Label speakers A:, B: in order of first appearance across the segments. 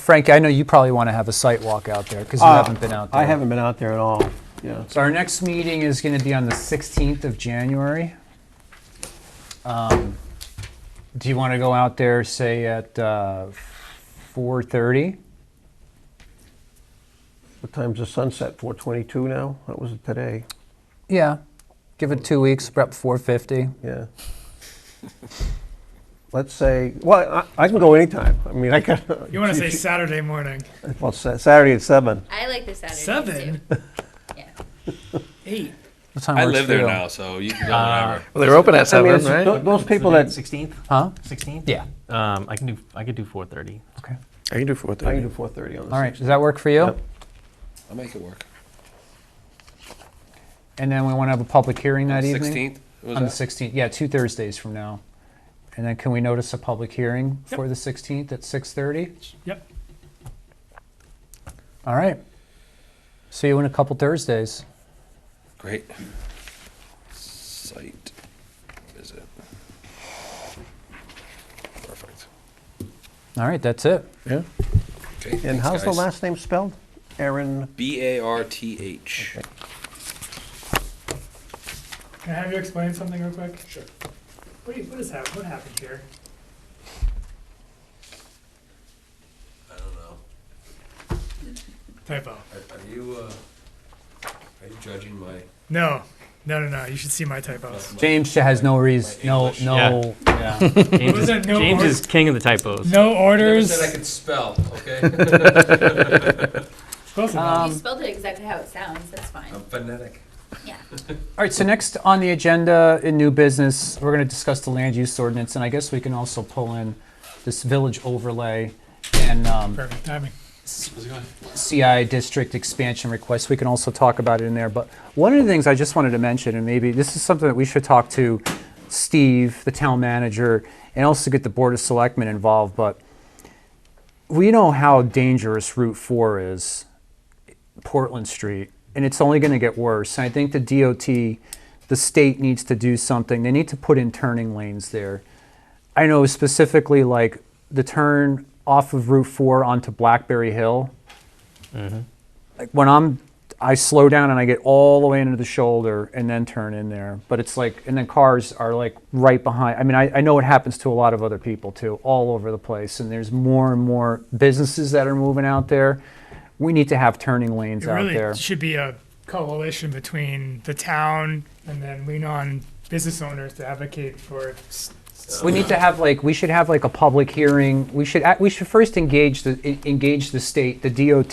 A: Frankie, I know you probably want to have a site walk out there because you
B: Uh,
A: haven't been out there.
B: I haven't been out there at all, yeah.
A: So our next meeting is going to be on the 16th of January. Um, Do you want to go out there, say, at uh, 4:30?
B: What time's the sunset, 4:22 now? That was today,
A: Yeah. Give it two weeks, prep 4:50.
B: yeah. Let's say, well, I I can go anytime. I mean, I can,
C: You want to say Saturday morning?
B: well, Sa- Saturday at seven.
D: I like the Saturday.
C: Seven?
D: Yeah.
C: Eight?
A: What time
E: I
A: works
E: live
A: for
E: there
A: you?
E: now, so you can go whenever.
F: Well, they're open at
B: I mean,
F: seven,
B: it's- tho-
F: right?
B: those people that,
G: Sixteenth,
A: Huh?
G: sixteenth.
A: Yeah.
G: Um, I can do. I could do four thirty.
A: Okay.
F: I can do four thirty.
B: I can do 4:30 on the
A: All right.
B: 16th.
A: Does that work for you?
B: Yep.
E: I'll make it work.
A: And then we want to have a public hearing that evening?
E: 16th? Was
A: On the
E: that?
A: 16th, yeah, two Thursdays from now. And then can we notice a public hearing for the 16th at 6:30?
C: Yep.
A: All right. See you in a couple Thursdays.
E: Great. Site visit. Perfect.
A: All right, that's it.
F: Yeah.
E: Okay.
B: And
E: thanks,
B: how's the
E: guys.
B: last name spelled? Aaron?
E: B A R T H.
C: Can I have you explain something real quick? Sure. What, do you- what is hap- What happened here?
E: I don't know.
C: Typo.
E: Are, are you uh, are you judging my
C: No, no, no, no. You should see my typos.
A: James has no reason, no,
E: English.
A: no. yeah.
G: James,
C: Was
G: is,
C: there no
G: James
C: or-
G: is king of the typos.
C: No
E: Never
C: orders.
E: said I could spell, okay?
C: Close enough.
D: you spelled it exactly how it sounds. That's fine.
E: I'm phonetic.
D: Yeah.
A: All right, so next on the agenda in new business, we're going to discuss the land use ordinance, and I guess we can also pull in this village overlay and um,
C: Perfect timing.
A: CI district expansion requests. We can also talk about it in there. But one of the things I just wanted to mention, and maybe this is something that we should talk to Steve, the town manager, and also get the Board of Selectmen involved, but we know how dangerous Route 4 is, Portland Street, and it's only going to get worse. And I think the DOT, the state needs to do something. They need to put in turning lanes there. I know specifically like the turn off of Route 4 onto Blackberry Hill like when I'm I slow down and I get all the way into the shoulder and then turn in there. But it's like and then cars are like right behind. I mean I, I know it happens to a lot of other people too, all over the place. And there's more and more businesses that are moving out there. We need to have turning lanes
C: It
A: out
C: really
A: there.
C: should be a coalition between the town and then lean on business owners to advocate for. s- s-
A: We need to have like we should have like a public hearing. We should act- we should first engage the en- engage the state, the DOT,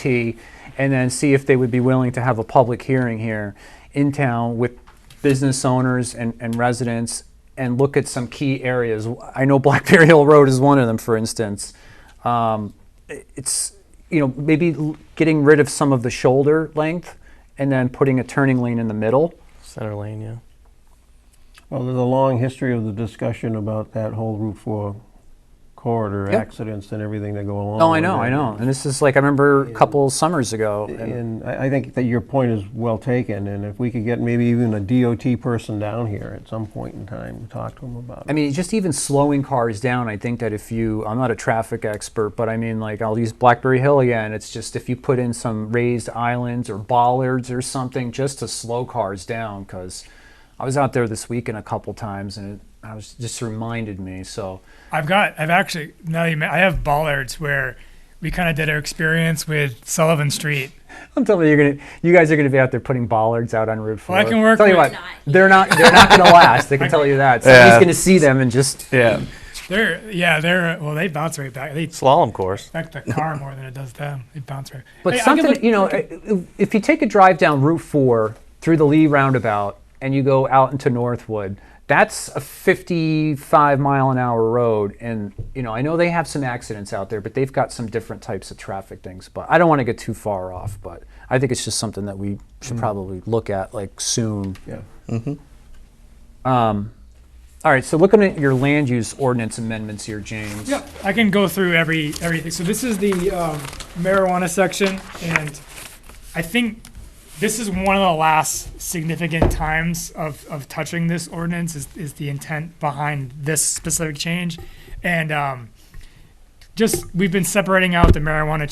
A: and then see if they would be willing to have a public hearing here in town with business owners and, and residents and look at some key areas. I know Blackberry Hill Road is one of them, for instance. Um, i- it's you know maybe l- getting rid of some of the shoulder length and then putting a turning lane in the middle.
G: Center lane, yeah.
B: Well, there's a long history of the discussion about that whole Route 4 corridor
A: Yep.
B: accidents and everything that go along.
A: Oh, I
B: with
A: know,
B: it.
A: I know. And this is like I remember a couple summers ago. and-
B: And I I think that your point is well taken, and if we could get maybe even a DOT person down here at some point in time to talk to them about
A: I
B: it.
A: mean, just even slowing cars down, I think that if you, I'm not a traffic expert, but I mean, like, I'll use Blackberry Hill again. It's just if you put in some raised islands or bollards or something just to slow cars down, because I was out there this weekend a couple times and it, I was just reminded me. So,
C: I've got, I've actually, now you, ma- I have bollards where we kind of did our experience with Sullivan Street.
A: I'm telling you, you're gonna, you guys are gonna be out there putting bollards out on Route Four.
C: Well, I can work
A: Tell you
C: with-
A: what, they're not, they're not gonna last. They can tell you that. Somebody's
F: Yeah.
A: gonna see them and just
F: Yeah.
C: They're, yeah, they're, well, they bounce right back. They
G: Slalom course.
C: affect the car more than it does them. They bounce right.
A: But
C: Hey, I give
A: something,
C: it-
A: you know, i- if you take a drive down Route 4 through the Lee roundabout and you go out into Northwood, that's a 55 mile an hour road. And, you know, I know they have some accidents out there, but they've got some different types of traffic things. But I don't want to get too far off, but I think it's just something that we
C: Mm.
A: should probably look at like soon.
B: Yeah.
A: All right, so looking at your land use ordinance amendments here, James.
C: Yep, I can go through every everything. So this is the um, marijuana section, and I think this is one of the last significant times of, of touching this ordinance is, is the intent behind this specific change, and um, just, we've been separating out the marijuana